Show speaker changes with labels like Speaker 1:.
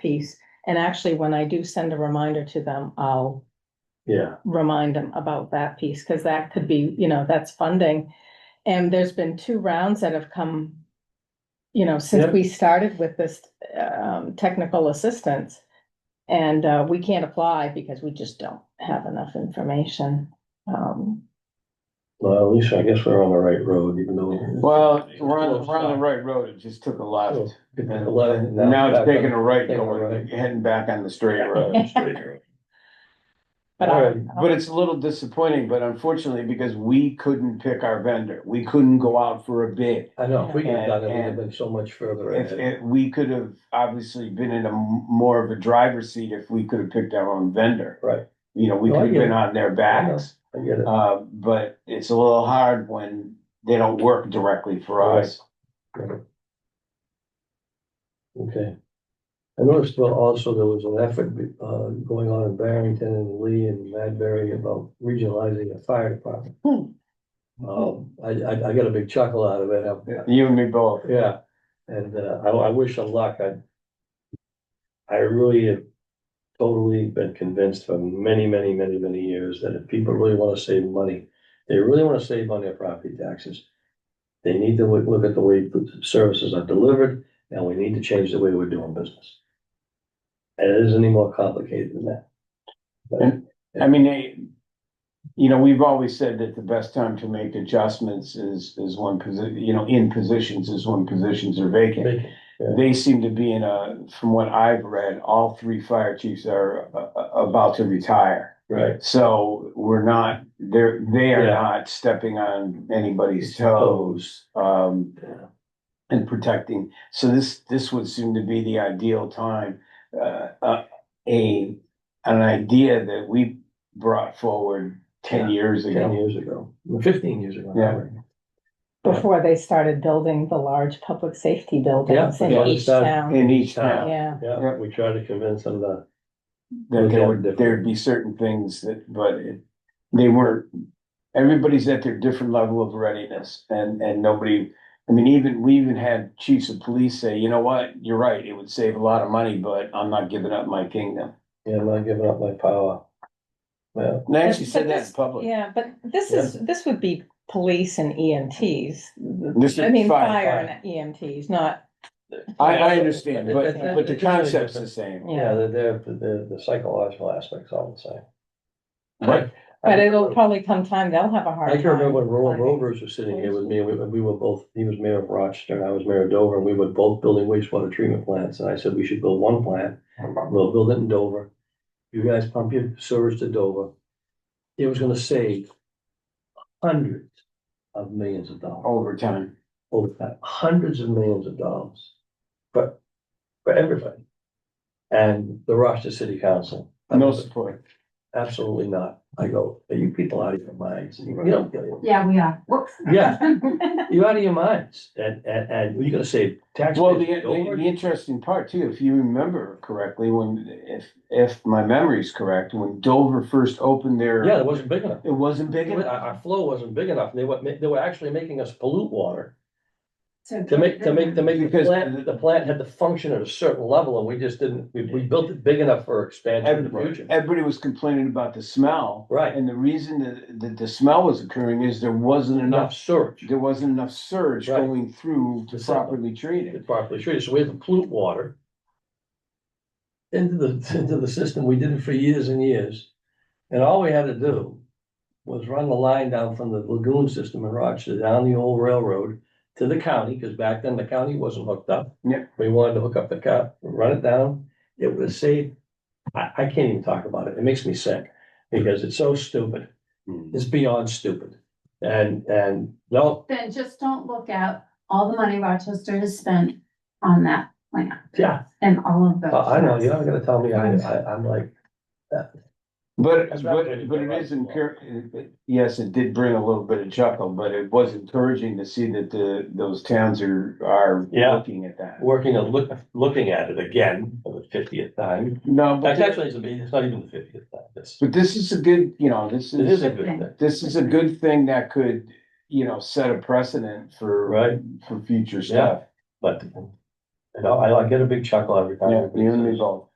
Speaker 1: piece. And actually, when I do send a reminder to them, I'll
Speaker 2: Yeah,
Speaker 1: remind them about that piece, because that could be, you know, that's funding. And there's been two rounds that have come, you know, since
Speaker 2: Yep.
Speaker 1: we started with this um technical assistance. And uh, we can't apply because we just don't have enough information. Um,
Speaker 2: well, at least I guess we're on the right road, even though.
Speaker 3: Well, we're on, we're on the right road, it just took a
Speaker 2: Sure.
Speaker 3: left.
Speaker 2: Took a left,
Speaker 3: And
Speaker 2: now
Speaker 3: Now
Speaker 2: back
Speaker 3: it's taking
Speaker 2: on-
Speaker 3: a right
Speaker 2: taking a
Speaker 3: going,
Speaker 2: right.
Speaker 3: heading back on the straight road.
Speaker 1: but I,
Speaker 2: Alright,
Speaker 3: But it's a little disappointing, but unfortunately, because we couldn't pick our vendor, we couldn't go out for a bid.
Speaker 2: I know, if we could have done it, we'd have
Speaker 3: And-
Speaker 2: been so much further
Speaker 3: If,
Speaker 2: ahead.
Speaker 3: if, we could have obviously been in a m- more of a driver's seat if we could have picked our own vendor.
Speaker 2: Right.
Speaker 3: You know, we
Speaker 2: No, I
Speaker 3: could have
Speaker 2: get
Speaker 3: been
Speaker 2: it.
Speaker 3: on their backs,
Speaker 2: I get it.
Speaker 3: uh, but it's a little hard when they don't work directly for us.
Speaker 2: Okay. I noticed well, also there was an effort uh, going on in Barrington and Lee and Madbury about regionalizing a fire department.
Speaker 1: Hmm.
Speaker 2: Um, I, I, I got a big chuckle out of it. I'm-
Speaker 3: You and me both.
Speaker 2: Yeah, and uh, I, I wish them luck. I I really have totally been convinced for many, many, many, many years that if people really want to save money, they really want to save on their property taxes. They need to look, look at the way the services are delivered, and we need to change the way we're doing business. And it isn't any more complicated than that.
Speaker 3: I mean, they, you know, we've always said that the best time to make adjustments is, is when position, you know, in positions is when positions are vacant.
Speaker 2: Make it-
Speaker 3: They seem to be in a, from what I've read, all three fire chiefs are uh, uh, about to retire.
Speaker 2: Right.
Speaker 3: So we're not, they're, they are
Speaker 2: Yeah.
Speaker 3: not stepping on anybody's toes, um,
Speaker 2: Yeah.
Speaker 3: and protecting. So this, this would seem to be the ideal time, uh, uh, a, an idea that we brought forward ten
Speaker 2: Yeah.
Speaker 3: years
Speaker 2: Ten
Speaker 3: ago.
Speaker 2: years ago, fifteen years ago.
Speaker 3: Yeah.
Speaker 1: before they started building the large public safety buildings in
Speaker 2: Yeah.
Speaker 1: each town,
Speaker 3: In each town,
Speaker 1: yeah.
Speaker 2: Yeah, we tried to convince them to
Speaker 3: that there would,
Speaker 2: Different.
Speaker 3: there'd be certain things that, but it, they weren't. Everybody's at their different level of readiness and, and nobody, I mean, even, we even had chiefs of police say, you know what, you're right, it would save a lot of money, but I'm not giving up my kingdom.
Speaker 2: Yeah, I'm not giving up my power. Well,
Speaker 3: And they actually said
Speaker 1: But
Speaker 3: that
Speaker 1: this-
Speaker 3: in public.
Speaker 1: Yeah, but this is, this would be police and EMTs.
Speaker 3: This
Speaker 1: I
Speaker 3: is
Speaker 1: mean,
Speaker 3: fire,
Speaker 1: fire and EMTs, not.
Speaker 3: I, I understand,
Speaker 2: It-
Speaker 3: but,
Speaker 1: it-
Speaker 3: but the
Speaker 2: it's really
Speaker 3: concept's the
Speaker 2: different.
Speaker 3: same.
Speaker 2: yeah, the, the, the, the psychological aspects all the same.
Speaker 1: But
Speaker 3: Right.
Speaker 1: it'll probably come time, they'll have a hard
Speaker 2: I
Speaker 1: time.
Speaker 2: can remember when Roland
Speaker 1: finding-
Speaker 2: Rovers was sitting here with me, and we, we were both, he was mayor of Rochester, and I was mayor of Dover, and we were both building wastewater treatment plants, and I said, we should build one plant. We'll build it in Dover. You guys pump your sewers to Dover. It was gonna save hundreds of millions of dollars.
Speaker 3: Overtime.
Speaker 2: over that, hundreds of millions of dollars. But for everybody. And the Rochester City Council.
Speaker 3: No support.
Speaker 2: Absolutely not. I go, are you people out of your minds? You don't get it.
Speaker 4: Yeah, we are. Whoops.
Speaker 2: Yeah, you're out of your minds. And, and, and you're gonna save
Speaker 3: Well, the,
Speaker 2: taxpayers.
Speaker 3: the,
Speaker 2: dollars?
Speaker 3: the interesting part too, if you remember correctly, when, if, if my memory's correct, when Dover first opened their.
Speaker 2: Yeah, it wasn't big enough.
Speaker 3: It wasn't big
Speaker 2: Our,
Speaker 3: enough.
Speaker 2: our flow wasn't big enough. They were, they were actually making us pollute water to make, to make, to make the
Speaker 3: Because-
Speaker 2: plant, the plant had to function at a certain level and we just didn't, we, we built it big enough for expansion in the
Speaker 3: Everybody
Speaker 2: future.
Speaker 3: everybody was complaining about the smell.
Speaker 2: Right,
Speaker 3: And the reason that, that the smell was occurring is there wasn't
Speaker 2: enough
Speaker 3: enough,
Speaker 2: surge.
Speaker 3: there wasn't enough surge
Speaker 2: Right.
Speaker 3: going through to
Speaker 2: The sample.
Speaker 3: properly treat it.
Speaker 2: it properly treated, so we had to pollute water. Into the, into the system, we did it for years and years, and all we had to do was run the line down from the lagoon system in Rochester, down the old railroad to the county, because back then the county wasn't hooked up.
Speaker 3: Yeah.
Speaker 2: We wanted to hook up the cap, run it down, it would have saved, I, I can't even talk about it, it makes me sick, because it's so stupid,
Speaker 3: Hmm.
Speaker 2: it's beyond stupid. And, and, no,
Speaker 4: Then just don't look at all the money Rochester has spent on that plant
Speaker 2: yeah,
Speaker 4: and all of those.
Speaker 2: Uh, I know, you're not gonna tell me, I, I, I'm like,
Speaker 3: But,
Speaker 2: That's not really
Speaker 3: but, but
Speaker 2: the
Speaker 3: it
Speaker 2: right
Speaker 3: is encouraging, yes, it did bring a little bit of chuckle, but it was encouraging to see that the, those towns are, are
Speaker 2: Yeah.
Speaker 3: looking at that.
Speaker 2: working on, look, looking at it again for the fiftieth time.
Speaker 3: No, but,
Speaker 2: That's
Speaker 3: thi-
Speaker 2: actually, it's a- it's not even the fiftieth time, it's,
Speaker 3: but this is a good, you know, this
Speaker 2: it is
Speaker 3: is,
Speaker 2: a good thing,
Speaker 3: this is a good thing that could, you know, set a precedent for,
Speaker 2: right?
Speaker 3: for future stuff.
Speaker 2: But And I, I get a big chuckle every time.
Speaker 3: Yeah,
Speaker 2: everybody
Speaker 3: the end
Speaker 2: says-
Speaker 3: result.